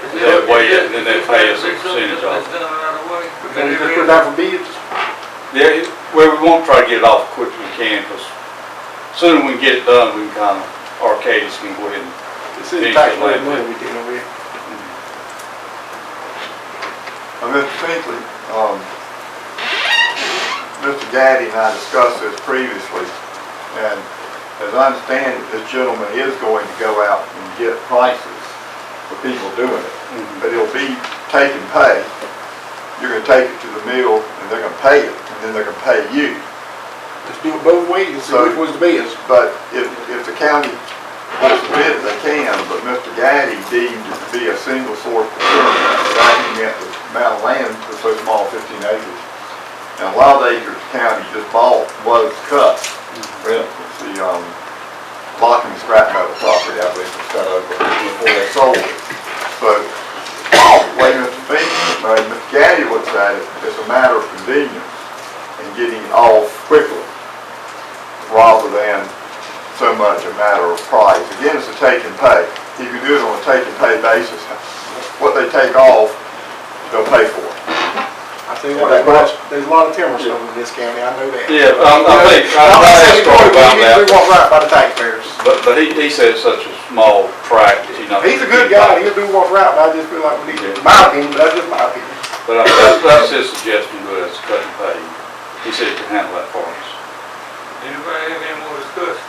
away it, and then they pay us a percentage off. It's done right away. And you just put it out for bids? Yeah, it- well, we won't try to get it off as quick as we can, because soon we can get it done, we can kind of, Arcadis can go ahead and This is taxpayer money we dealing with. Uh, Mr. Pinkley, um, Mr. Gaddy and I discussed this previously, and as I understand it, this gentleman is going to go out and get prices for people doing it, Mhm. but it'll be take and pay. You're gonna take it to the mill, and they're gonna pay it, and then they're gonna pay you. Let's do it both ways and see So- which one's the best. But if, if the county puts the bid, they can, but Mr. Gaddy deemed it to be a single source procurement, valuing at the amount of land that's so small, fifteen acres. And a lot of acres the county just bought was cut, Mm-hmm. for instance, the, um, Locking scrap metal property, I believe, was cut over before they sold it. So, the way Mr. Fink, uh, Mr. Gaddy looks at it, it's a matter of convenience and getting off quickly rather than so much a matter of price. Again, it's a take and pay. If you do it on a take and pay basis, what they take off, they'll pay for it. I think there's a lot- there's a lot of timber sold in this county, I know that. Yeah, but I'm, I think, I I'm I asked saying Troy about We that, want right by the taxpayers. but, but he, he said it's such a small tract, you know. He's a good guy, he'll do what's right, but I just feel like we need, to- my opinion, but that's just my opinion. But I- that's, that's his suggestion, but it's cut and pay. He said he can handle that for us. Anybody have any more discussion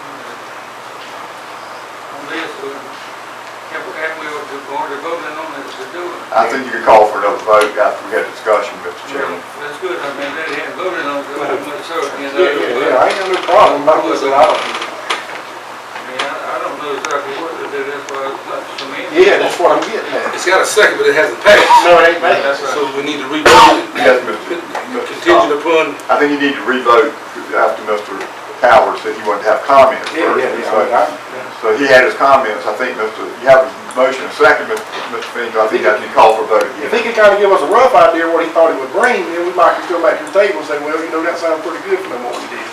on this? or Have have we already voted on this to do it? I think you could call for another vote after we had discussion, Mr. Chairman. That's good, I mean, they hadn't voted on it, so I'm not sure. you know, Yeah, yeah, but- yeah, I ain't got no problem, my was at all. I mean, I I don't know exactly what to do, that's why I was like, I mean. Yeah, that's what I'm getting at. It's got a second, but it hasn't passed. No, it ain't bad. That's right. So we need to revote it, Yes, Mr. Mr. Scott. contingent upon, I think you need to re-vote after Mr. Powers said he wanted to have comments Yeah, first. yeah, yeah, So- I- I- So he had his comments. I think, Mr., you have a motion, a second, Mr. Finkel. I think I can call for vote again. If he could kind of give us a rough idea of what he thought it would bring, then we might could go back to the table and say, well, you know, that sounds pretty good for them, what we did.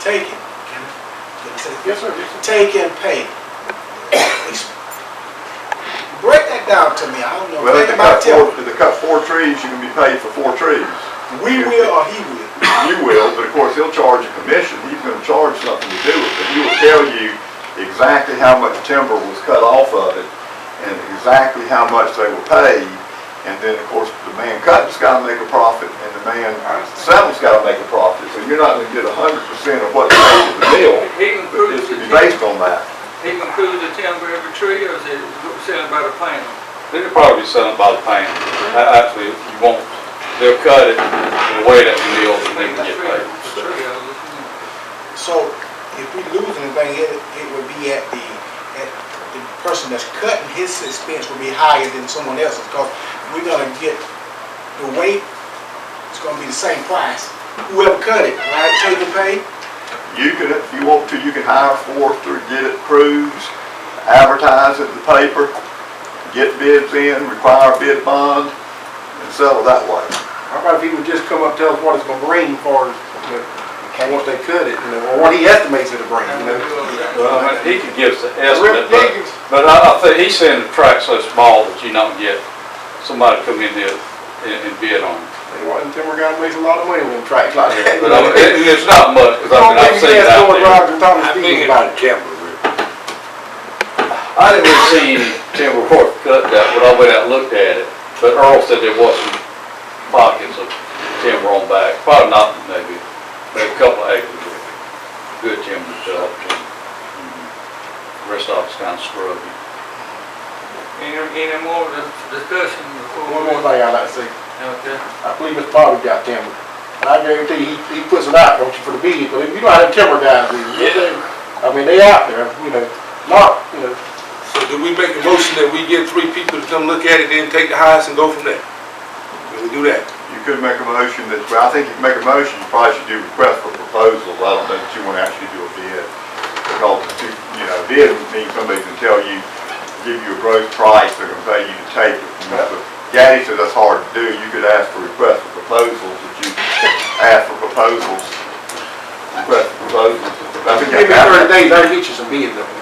Take it. Yes, sir, yes, sir. Take and pay. Break that down to me, I don't know, Well, if think they cut about timber. four, if they cut four trees, you can be paid for four trees. We will or he will. You will, but of course, he'll charge a commission, he's gonna charge something to do with it. He will tell you exactly how much timber was cut off of it, and exactly how much they were paid. And then, of course, the man cutting's gotta make a profit, and the man selling's gotta make a profit. So you're not gonna get a hundred percent of what they paid to the mill, He but includes it's the gonna be timber, based on that. he includes the timber every tree, or is it selling by the panel? They could probably be selling by the pound. A- Actually, you won't, they'll cut it and weigh it at the mill and they can get paid. Tree, I was looking at. So if we lose anything, it, it would be at the, at the person that's cutting, his expense would be higher than someone else's, because we're gonna get the weight, it's gonna be the same price, whoever cut it, right, take and pay? You can, if you want to, you can hire a forester, get it crews, advertise it in the paper, get bids in, require a bid bond, and settle that way. How about if he would just come up, and tell us what it's gonna bring for, us, you know, once they cut it, you know, or what he estimates it'll bring, you know? Well, I mean, he could give us an estimate, but. Rick Jenkins, But I, I think he's saying the track's so small that you don't get somebody come in there and, and bid on it. They want, them timber guy makes a lot of money with them tracks like that. But I mean, it- and it's not much, because I mean, I've seen it out there. I think about it. I didn't really see any timber work cut that, when I went out and looked at it, but Earl said there was some pockets of timber on back, probably not, maybe, maybe a couple of acres of good timber cut. Mm-hmm. Rest of it's kind of scrubby. Any, any more dis- discussion before? One we- more thing I'd like to say, Okay. I believe Mr. Bobby got timber, and I guarantee he, he puts it out, don't you, for the bid, but you know how them timber guys is. Yeah. I mean, they out there, you know, not, you know, so do we make a motion that we get three people to come look at it, then take the highest and go from there? Can we do that? You could make a motion that, well, I think if you make a motion, you probably should do request for proposal, I don't think you want to actually do a bid. Because, you you know, bid would mean somebody can tell you, give you a gross price, they're gonna pay you to take it. And that's what- Gaddy said that's hard to do, you could ask for request for proposals, that you ask for proposals, request for proposals. I think you maybe have to- thirty days, I'll get you some bids on it.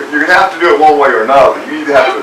You're you're gonna have to do it one way or another, you either have to